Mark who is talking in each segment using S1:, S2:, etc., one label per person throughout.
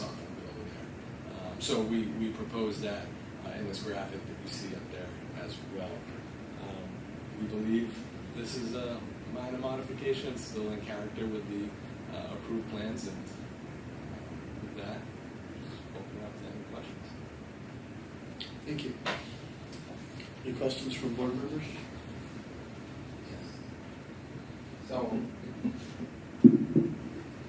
S1: Um, So we, we propose that uh, in this graphic that you see up there as well. Um, We believe this is a minor modification, it's still in character with the uh, approved plans, and um, with that, just open up to any questions.
S2: Thank you. Any questions from board members?
S3: So,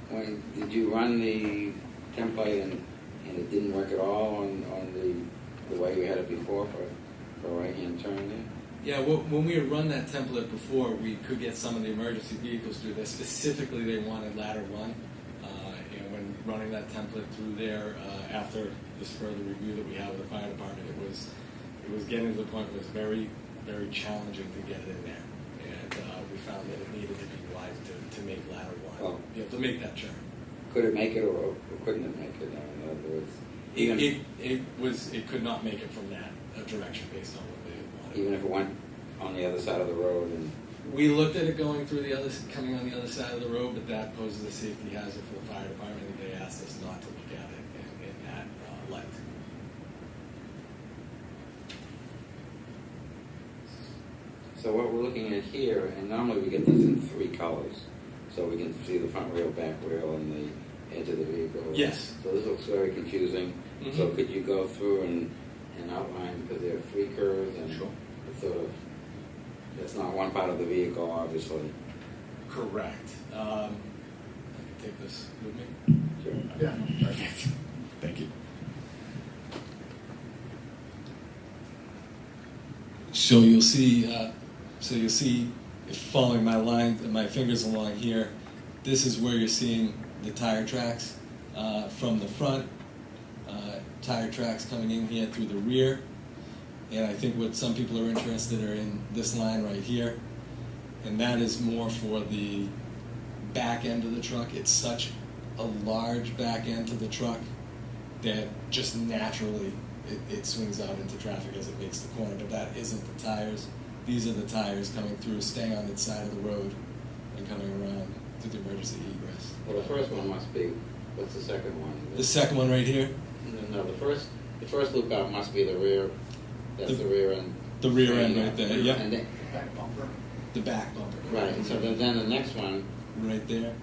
S3: when, did you run the template and, and it didn't work at all on, on the, the way you had it before for, for right-hand turn there?
S1: Yeah, wh- when we had run that template before, we could get some of the emergency vehicles through there. Specifically, they wanted ladder one. Uh, and when running that template through there, uh, after this further review that we had with the fire department, it was it was getting to the point where it was very very challenging to get it in there. And uh, we found that it needed to be wide to, to make ladder one,
S3: Oh.
S1: you know, to make that turn.
S3: Could it make it or, or couldn't it make it, in other words?
S1: It,
S3: Even,
S1: it, it was it could not make it from that uh, direction based on what they wanted.
S3: even if it went on the other side of the road and,
S1: We looked at it going through the other, coming on the other side of the road, but that poses a safety hazard for the fire department, and they asked us not to look at it in, in that uh, light.
S3: so what we're looking at here, and normally we get these in three colors, so we can see the front wheel, back wheel, and the edge of the vehicle.
S1: Yes.
S3: So this looks very confusing. So
S1: Mhm.
S3: could you go through and, and outline, because there are three curves and
S1: Sure.
S3: it's sort of, it's not one part of the vehicle, obviously.
S1: Correct. Um, I can take this with me.
S3: Sure.
S2: Yeah.
S1: Perfect. Thank you. So you'll see, uh, so you'll see, if following my line, my fingers along here, this is where you're seeing the tire tracks uh, from the front, uh, tire tracks coming in here through the rear. And I think what some people are interested are in this line right here. And that is more for the back end of the truck. It's such a large back end to the truck that just naturally it, it swings out into traffic as it makes the corner. But that isn't the tires. These are the tires coming through, staying on its side of the road and coming around through the emergency egress.
S3: Well, the first one must be, what's the second one?
S1: The second one right here,
S3: No, No, the first, the first loop out must be the rear, that's
S1: The-
S3: the rear end.
S1: the rear end
S3: And, uh,
S1: right there, yep.
S3: and then-
S4: back bumper.
S1: the back bumper.
S3: Right, and so then, then the next one,
S1: Right there.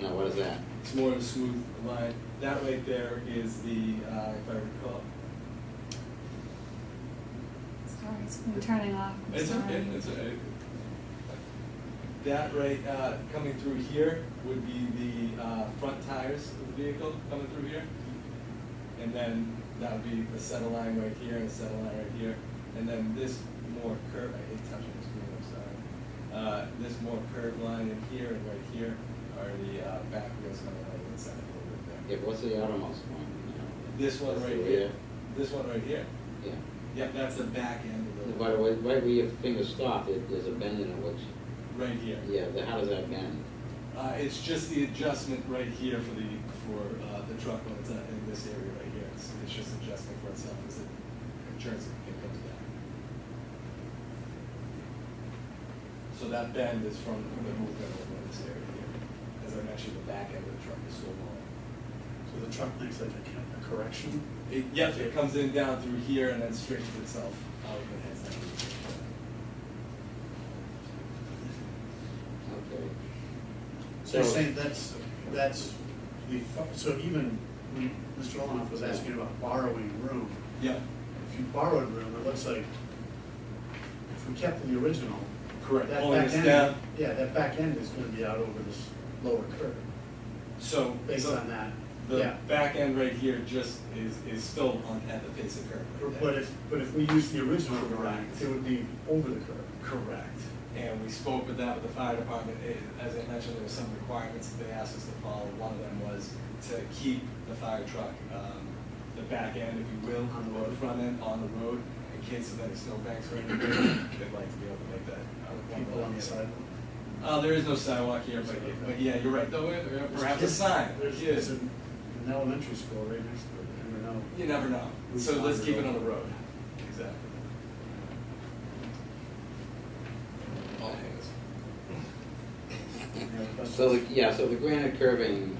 S3: now what is that?
S5: It's more of a smooth line. That right there is the, uh, if I recall,
S6: Sorry, it's been turning off. I'm
S5: it's
S6: sorry.
S5: okay, it's okay. That right, uh, coming through here would be the, uh, front tires of the vehicle coming through here. And then that would be a center line right here and a center line right here. And then this more curve, I hate touching the screen, I'm sorry. Uh, this more curved line in here and right here are the, uh, back wheels coming out of the side a little bit there.
S3: Yeah, what's the outermost one? now?
S5: This one
S3: That's
S5: right
S3: the
S5: here.
S3: rear.
S5: This one right here.
S3: Yeah.
S5: Yep, that's the back end of the
S3: By the way, right where your finger stopped, it- there's a bend in it, which,
S5: right here.
S3: yeah, the- how does that bend?
S5: Uh, it's just the adjustment right here for the for uh, the truck when it's uh, in this area right here. It's, it's just adjusting for itself as it turns and comes down. So that bend is from the movement over this area here. As I mentioned, the back end of the truck is so long.
S2: So the truck makes like a correction?
S5: It, yes, it comes in down through here and then stretches itself out and heads down.
S3: Okay.
S2: So you're saying that's, that's, the fu- so even when Mr. Olinoff was asking about borrowing room,
S5: Yeah,
S2: if you borrowed room, it looks like if we kept the original,
S5: correct.
S2: that back end.
S5: Pulling this down.
S2: Yeah, that back end is gonna be out over this lower curve,
S5: So
S2: based
S5: the-
S2: on that,
S5: The
S2: yeah.
S5: back end right here just is, is still on at the face of curve right
S2: But
S5: there.
S2: if, but if we use the original drawing,
S5: Correct.
S2: it would be over the curve.
S5: Correct. And we spoke with that with the fire department, It- as I mentioned, there were some requirements that they asked us to follow. One of them was to keep the fire truck, um, the back end, if you will,
S2: On the
S5: or
S2: road.
S5: front end on the road, in case of any snowbanks or anything, they'd like to be able to make that. uh, one
S2: People on
S5: block.
S2: the sidewalk.
S5: Uh, there is no sidewalk here, but, but yeah, you're right, though, uh, perhaps a sign.
S2: There's,
S5: Yeah.
S2: there's an an elementary school right next to it, I don't know.
S5: You never know. So let's keep it on the road. Exactly. All hands.
S2: You know, but-
S3: So, the- yeah, so the granite curving